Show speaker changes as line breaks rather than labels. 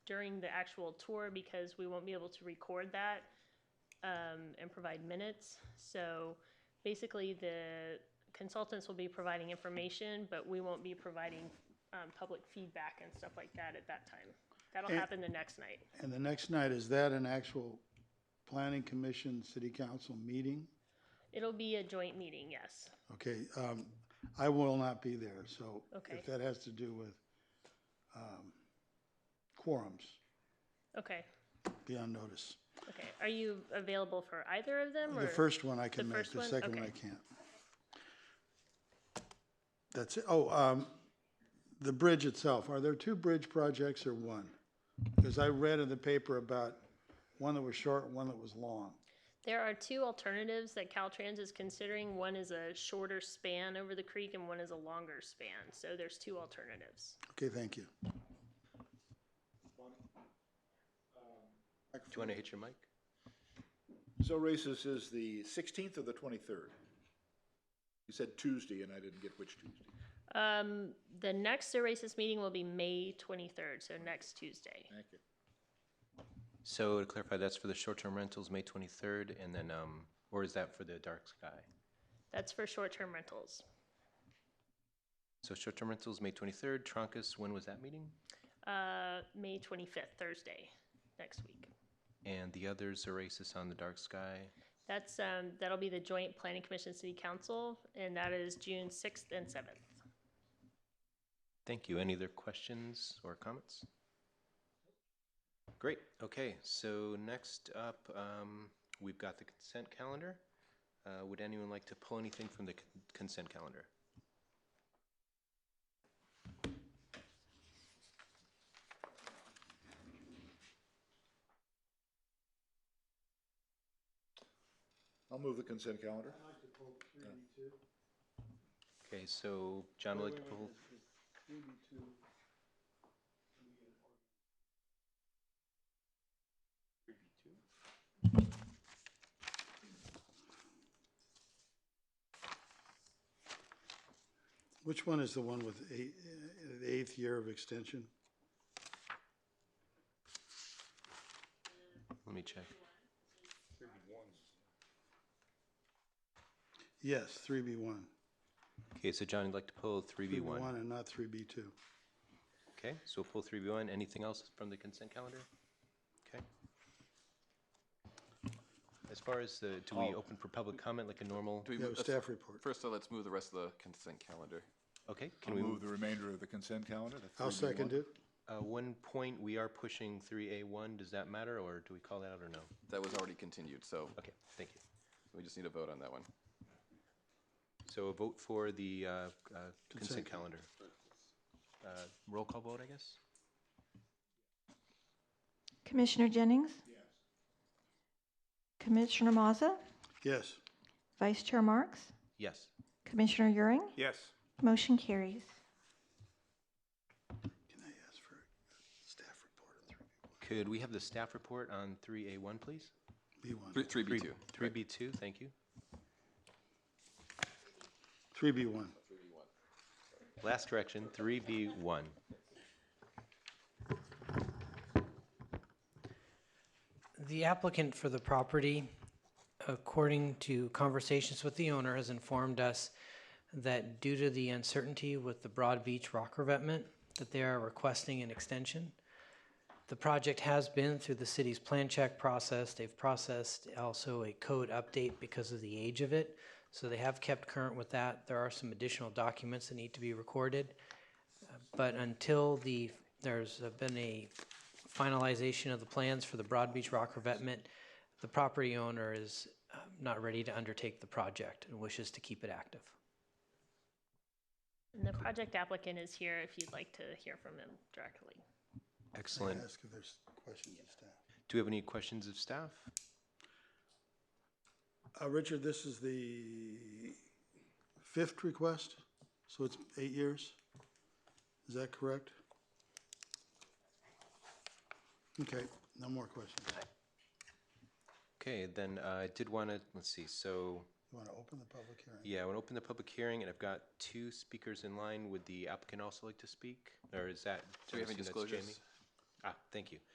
during the actual tour because we won't be able to record that um, and provide minutes. So basically, the consultants will be providing information, but we won't be providing um, public feedback and stuff like that at that time. That'll
And-
happen the next night.
And the next night, is that an actual planning commission, city council meeting?
It'll be a joint meeting, yes.
Okay, um, I will not be there, so
Okay.
if that has to do with, um, quorums,
Okay,
be on notice.
okay. Are you available for either of them?
The
or-
first one I can
the
make,
first
the
one?
second one I
Okay.
can't. That's it. Oh, um, the bridge itself, are there two bridge projects or one? Because I read in the paper about one that was short, one that was long.
There are two alternatives that Caltrans is considering. One is a shorter span over the creek and one is a longer span. So there's two alternatives.
Okay, thank you.
Do you want to hit your mic?
So races is the sixteenth or the twenty-third? You said Tuesday, and I didn't get which Tuesday.
Um, the next Oasis meeting will be May twenty-third, so next Tuesday.
Thank you.
So to clarify, that's for the short-term rentals, May 23rd, and then, um, or is that for the dark sky?
That's for short-term rentals.
So short-term rentals, May 23rd, Troncas, when was that meeting?
Uh, May twenty-fifth, Thursday, next week.
And the others, Oasis on the dark sky.
That's, um, that'll be the joint planning commission city council and that is June sixth and seventh.
Thank you. Any other questions or comments? Great, okay, so next up, um, we've got the consent calendar. Uh, would anyone like to pull anything from the con- consent calendar?
I'll move the consent calendar.
Okay, so John would like to pull,
Which one is the one with eight, uh, the eighth year of extension?
let me check.
Yes, three B one.
Okay, so John would like to pull three B one.
One and not three B two.
Okay, so we'll pull three B one. Anything else from the consent calendar? Okay. As far as the, do we open for public comment like a normal?
Do we
Yeah,
move-
staff report.
First, though, let's move the rest of the consent calendar.
Okay, can
I'll
we,
move the remainder of the consent calendar. the
I'll
3B1.
second it.
uh, one point, we are pushing three A one. Does that matter or do we call that out or no?
That was already continued, so
Okay, thank you.
we just need a vote on that one.
So a vote for the, uh, uh, consent calendar. Uh, roll call vote, I guess?
Commissioner Jennings? Commissioner Mazza?
Yes.
Vice Chair Marks?
Yes.
Commissioner Euring?
Yes.
Motion carries.
Can I ask for a staff report on three
Could we have the staff report on three A one, please?
B one?
Three- 3B2.
Three B two, thank you.
Three B one.
Last correction, three B one.
The applicant for the property, according to conversations with the owner, has informed us that due to the uncertainty with the Broad Beach rock revetment, that they are requesting an extension. The project has been through the city's plan check process. They've processed also a code update because of the age of it. So they have kept current with that. There are some additional documents that need to be recorded. But until the, there's been a finalization of the plans for the Broad Beach Rock revetment, the property owner is um, not ready to undertake the project and wishes to keep it active.
And the project applicant is here if you'd like to hear from him directly.
Excellent.
Ask if there's questions of staff.
Do we have any questions of staff?
Uh, Richard, this is the fifth request, so it's eight years? Is that correct? Okay, no more questions.
Okay, then uh, I did want to, let's see, so,
You want to open the public hearing?
yeah, I want to open the public hearing, and I've got two speakers in line. Would the applicant also like to speak? Or is that?
Do we have
I'm
any
assuming that's Jamie?
disclosures?
Ah, thank you.